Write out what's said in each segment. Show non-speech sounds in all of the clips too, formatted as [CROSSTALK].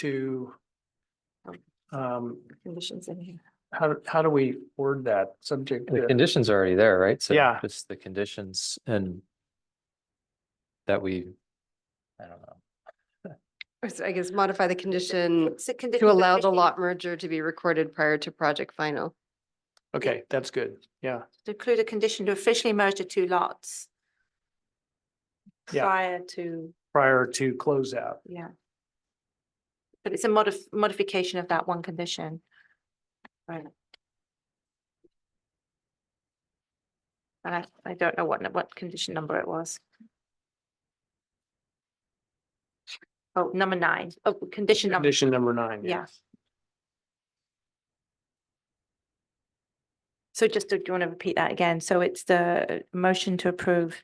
to um, Conditions in here. how, do- how do we word that subject? The to- condition's already there, right? So Yeah. Just the conditions and that we, I don't know. Or so I guess modify the condition Is it Mm. to conditions of allow the fishing? lot merger to be recorded prior to project final. Okay, that's good. Yeah, To include a condition to officially merge the two lots. Yeah. Prior to, prior to closeout. yeah. But it's a modif- modification of that one condition. Right. And I, I don't know what, nu- what condition number it was. Oh, number nine. Oh, condition number, Condition number nine. yeah. So just, do you want to repeat that again? So it's the motion to approve,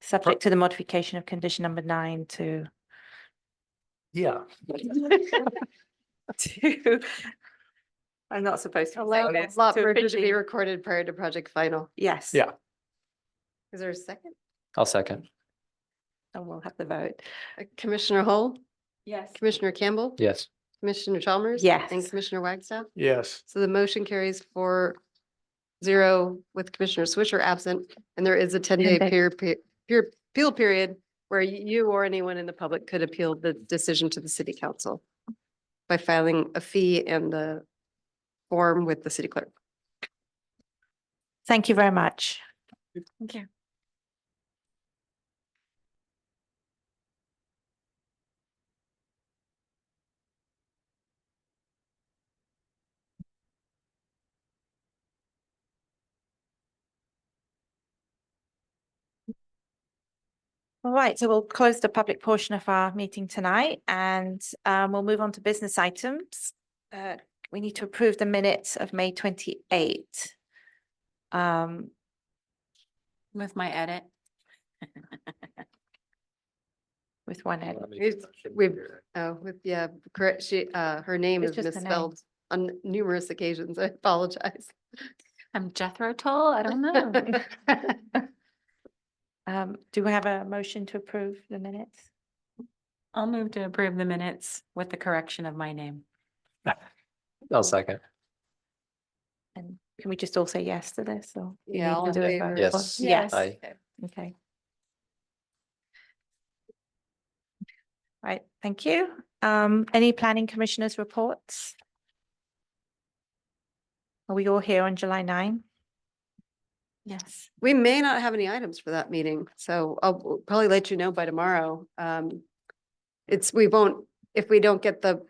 subject to the modification of condition number nine [LAUGHS] to [LAUGHS] Yeah, to, I'm not supposed to. be Allow saying the this, lot to merger to officially- be recorded prior to project final. Yes. Yeah. Is there a second? I'll second. And we'll have the vote. Uh, Commissioner Hull, Yes. Commissioner Campbell, Yes. Commissioner Chalmers. And Yes. Commissioner Wagstaff. yes. So the motion carries for zero with Commissioner Swisher absent, and there is a ten-day days. peer, pe- peer appeal period where y- you or anyone in the public could appeal the decision to the city council by filing a fee and the form with the city clerk. Thank you very much. Thank you. All right, so we'll close the public portion of our meeting tonight and um, we'll move on to business items. Uh, We need to approve the minutes of May twenty-eight. Um, With my edit. with one edit. We've, oh, with, yeah, correct, she, uh, her name It's just is the name. misspelled on numerous occasions. I apologize. I'm Jethro Tull. I don't know. [LAUGHS] Um, do we have a motion to approve the minutes? I'll move to approve the minutes with the correction of my name. I'll second. And can we just all say yes to this or? you Yeah, need all to in do it favor. vote? Yes. Yes, Aye. okay. Right, thank you. Um, any planning commissioners' reports? Are we all here on July nine? Yes. We may not have any items for that meeting, so I'll probably let you know by tomorrow. Um, It's, we won't, if we don't get the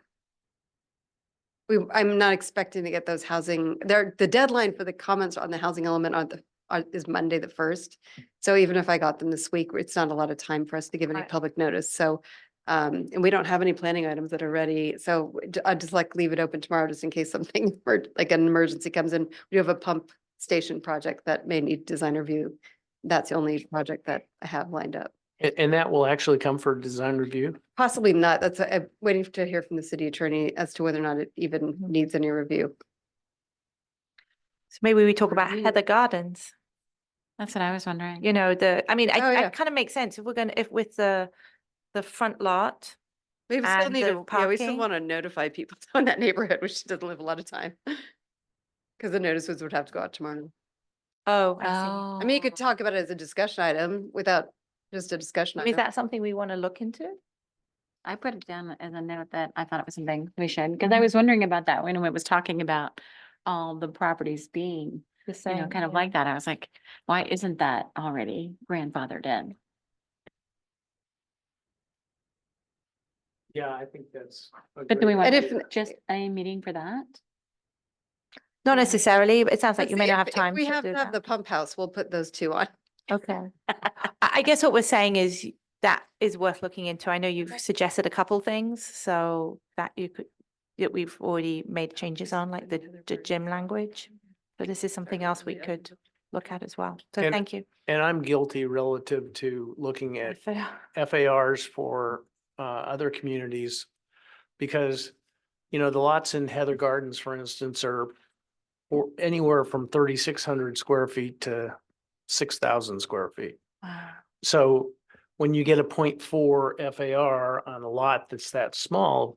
we, I'm not expecting to get those housing, there, the deadline for the comments on the housing element on the, on- is Monday the first. So even if I got them this week, it's not a lot of time for us to give any Right. public notice, so. Um, and we don't have any planning items that are ready, so d- I'd just like leave it open tomorrow just in case something, [LAUGHS] emer- like an emergency comes in. We have a pump station project that may need design review. That's the only project that I have lined up. And, and that will actually come for design review? Possibly not, that's, I'm waiting to hear from the city attorney as to whether or not it even Mm-hmm. needs any review. So maybe we talk about Review. Heather Gardens. That's what I was wondering. you know, the, I mean, Oh, I, yeah. it kind of makes sense if we're gonna, if with the, the front lot. We still and need the to, yeah, we still parking. want to notify people [LAUGHS] in that neighborhood, which doesn't live a lot of time. Because the notices would have to go out tomorrow. Oh, I Oh. I mean, you could talk about it as a discussion item without just a discussion. see. Is item. that something we want to look into? I put it down as a note that I thought it was something we should, because I was wondering about that when it was talking about all the properties being, The you know, same, kind of yeah. like that. I was like, why isn't that already grandfathered in? Yeah, I think that's. But do we want And if- just a meeting for that? Not necessarily, but it sounds like Let's you may see, not if- have if time to We have do to have the that. pump house. We'll put those two on. Okay. [LAUGHS] I, I guess what we're saying is y- that is worth looking into. I know you've suggested a couple things, so that you could, that we've already made changes on, like the, the gym language. But this is something else we could look at as well. So And- thank you. And I'm guilty relative to looking at [LAUGHS] FARs for uh, other communities. Because, you know, the lots in Heather Gardens, for instance, are or anywhere from thirty-six hundred square feet to six thousand square feet. Wow. So when you get a 0.4 FAR on a lot that's that small,